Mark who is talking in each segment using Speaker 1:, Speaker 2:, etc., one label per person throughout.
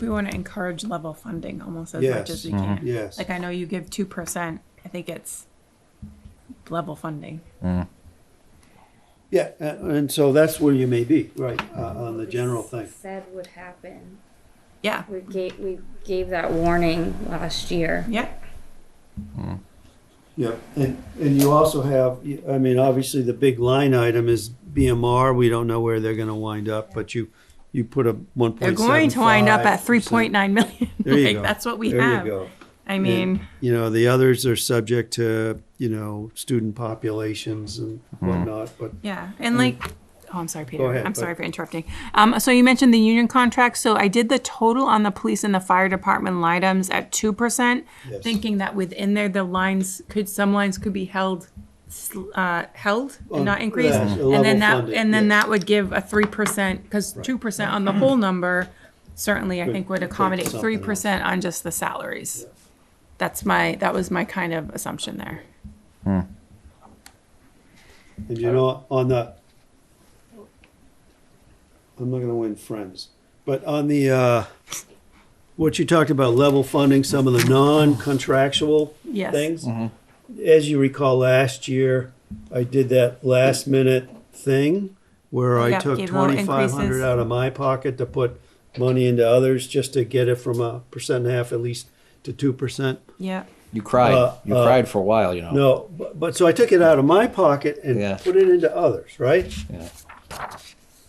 Speaker 1: We want to encourage level funding almost as much
Speaker 2: Yes. Mm-hmm.
Speaker 1: as we can.
Speaker 2: Yes.
Speaker 1: Like I know you give two percent. I think it's level funding.
Speaker 2: Yeah, a- and so that's where you may be, right, uh, on the general
Speaker 3: We
Speaker 2: thing.
Speaker 3: Said would happen.
Speaker 1: Yeah.
Speaker 3: We gave, we gave that warning last year.
Speaker 1: Yeah.
Speaker 2: Yeah, and, and you also have, I mean, obviously, the big line item is BMR, we don't know where they're gonna wind up, but you, you put a one
Speaker 1: They're
Speaker 2: point seven five.
Speaker 1: going to wind up at three point nine million.
Speaker 2: There you
Speaker 1: like
Speaker 2: go.
Speaker 1: that's what we
Speaker 2: There you
Speaker 1: have.
Speaker 2: go.
Speaker 1: I
Speaker 2: And,
Speaker 1: mean,
Speaker 2: You know, the others are subject to, you know, student populations and whatnot, but
Speaker 1: yeah. And like oh I'm sorry, Peter.
Speaker 2: Um, ahead,
Speaker 1: I'm
Speaker 2: but-
Speaker 1: sorry for interrupting. Um so you mentioned the union contracts. So I did the total on the police and the fire department line items at two percent,
Speaker 2: Yes.
Speaker 1: thinking that within there the lines could some lines could be held sl- uh, held
Speaker 2: On-
Speaker 1: and not increased.
Speaker 2: yeah, level
Speaker 1: and then that
Speaker 2: funded,
Speaker 1: and then
Speaker 2: yeah.
Speaker 1: that would give a three percent because two percent on the whole number certainly I
Speaker 2: Could-
Speaker 1: think would
Speaker 2: could
Speaker 1: accommodate
Speaker 2: something
Speaker 1: three percent on just the salaries. That's my that was my kind of assumption there.
Speaker 2: And you know, on the, I'm not gonna win friends, but on the, uh, what you talked about, level funding, some of the non-contractual
Speaker 1: Yes.
Speaker 2: things. As you recall, last year, I did that last minute thing where I
Speaker 1: Yep,
Speaker 2: took
Speaker 1: gave little
Speaker 2: twenty-five hundred
Speaker 1: increases.
Speaker 2: out of my pocket to put money into others, just to get it from a percent and a half at least to two percent.
Speaker 1: Yeah.
Speaker 4: You cried.
Speaker 2: Uh,
Speaker 4: you
Speaker 2: uh,
Speaker 4: cried for a while, you know.
Speaker 2: No, but, but so I took it out of my pocket and
Speaker 4: Oh. Yeah.
Speaker 2: put it into others, right?
Speaker 4: Yeah.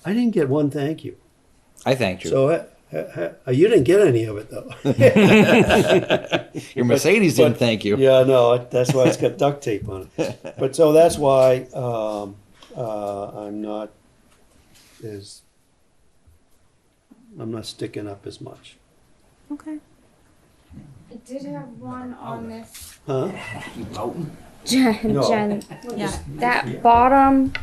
Speaker 2: I didn't get one thank you.
Speaker 4: I thanked you.
Speaker 2: So uh, uh, uh, you didn't get any of it though.
Speaker 4: Your Mercedes
Speaker 2: but-
Speaker 4: didn't thank you.
Speaker 2: yeah, no, that's why it's got duct tape on it. But so that's why um, uh, I'm not as I'm not sticking up as much.
Speaker 1: Okay.
Speaker 3: I did have one on this.
Speaker 2: Huh?
Speaker 3: Jen,
Speaker 2: No.
Speaker 3: Jen,
Speaker 1: Yeah.
Speaker 3: that bottom,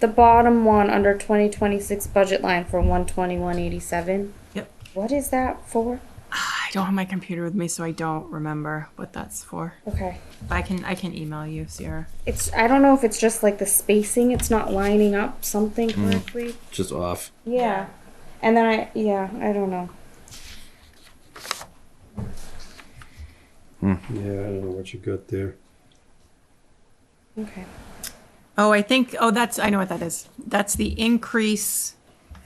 Speaker 3: the bottom one under twenty twenty-six budget line for one twenty-one eighty-seven.
Speaker 1: Yep.
Speaker 3: What is that for?
Speaker 1: I don't have my computer with me, so I don't remember what that's for.
Speaker 3: Okay.
Speaker 1: But I can I can email you, Sierra.
Speaker 3: It's, I don't know if it's just like the spacing, it's not lining up something correctly.
Speaker 4: Just off.
Speaker 3: Yeah. And then I, yeah, I don't know.
Speaker 2: Yeah, I don't know what you got there.
Speaker 3: Okay.
Speaker 1: Oh, I think oh that's I know what that is. That's the increase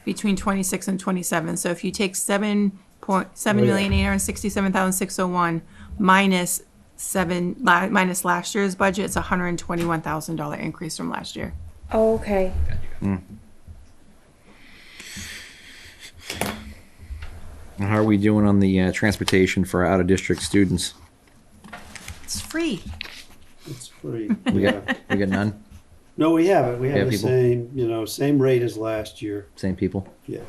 Speaker 1: between twenty six and twenty seven. So if you take seven point seven
Speaker 2: Oh, yeah.
Speaker 1: million eight hundred sixty seven thousand six hundred one minus seven la- minus last year's budget, it's a hundred and twenty one thousand dollar increase from last year.
Speaker 3: Oh, Okay.
Speaker 4: And How are we doing on the uh, transportation for out of district students?
Speaker 1: It's free.
Speaker 2: It's pretty.
Speaker 4: We
Speaker 2: Yeah.
Speaker 4: got we got none.
Speaker 2: no, we have it. We have
Speaker 4: Yeah,
Speaker 2: the
Speaker 4: people.
Speaker 2: same, you know, same rate as last year.
Speaker 4: Same people.
Speaker 2: Yeah.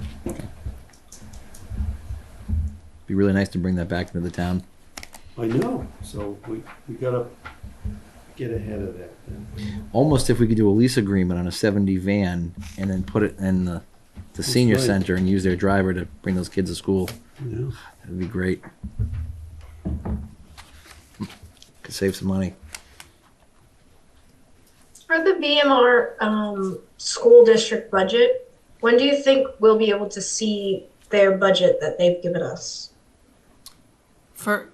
Speaker 4: Be really nice to bring that back into the town.
Speaker 2: I know. So we we gotta get ahead of that. Then.
Speaker 4: Almost if we could do a lease agreement on a seventy van and then put it in the the senior
Speaker 2: right.
Speaker 4: center and use their driver to bring those kids to school.
Speaker 2: You know?
Speaker 4: That'd be great. Could save some money.
Speaker 5: For the BMR um, school district budget, when do you think we'll be able to see their budget that they've given us?
Speaker 1: For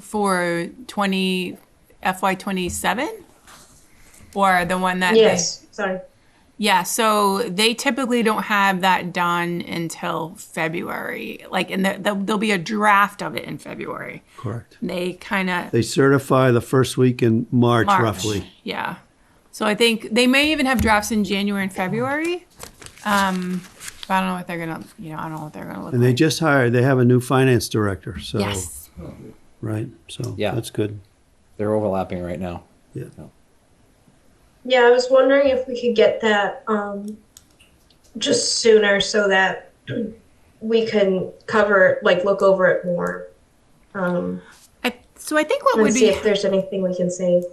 Speaker 1: for twenty FY twenty seven? Or the one that they-
Speaker 5: Yes, sorry.
Speaker 1: Yeah, so they typically don't have that done until February. Like, and the, the, there'll be a draft of it in February.
Speaker 2: Correct.
Speaker 1: They kind of
Speaker 2: They certify the first week in March,
Speaker 1: March,
Speaker 2: roughly.
Speaker 1: yeah. So I think they may even have drafts in January and February. Um, but I don't know what they're gonna, you know, I don't know what they're gonna look
Speaker 2: And they
Speaker 1: like.
Speaker 2: just uh, hired, they have a new finance director, so,
Speaker 1: yes,
Speaker 2: right? So
Speaker 4: Yeah.
Speaker 2: that's good.
Speaker 4: They're overlapping right now.
Speaker 2: Yeah.
Speaker 5: Yeah, I was wondering if we could get that um, just sooner so that we can cover, like, look over it more. Um,
Speaker 1: I, so I think what
Speaker 5: and
Speaker 1: would
Speaker 5: see
Speaker 1: be
Speaker 5: if there's anything we can save.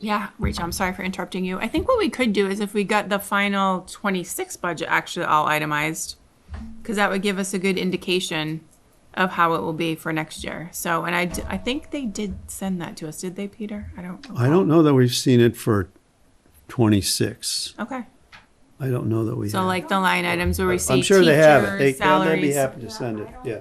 Speaker 1: Yeah, Rachel, I'm sorry for interrupting you. I think what we could do is if we got the final 26 budget actually all itemized, because that would give us a good indication of how it will be for next year. So, and I, d- I think they did send that to us, did they, Peter? I don't.
Speaker 2: I don't know that we've seen it for 26.
Speaker 1: Okay.
Speaker 2: I don't know that we have.
Speaker 1: So like the line items where we see
Speaker 2: I'm sure they have it. They,
Speaker 1: teachers,
Speaker 2: they'd
Speaker 1: salaries.
Speaker 2: be happy to send it, yeah.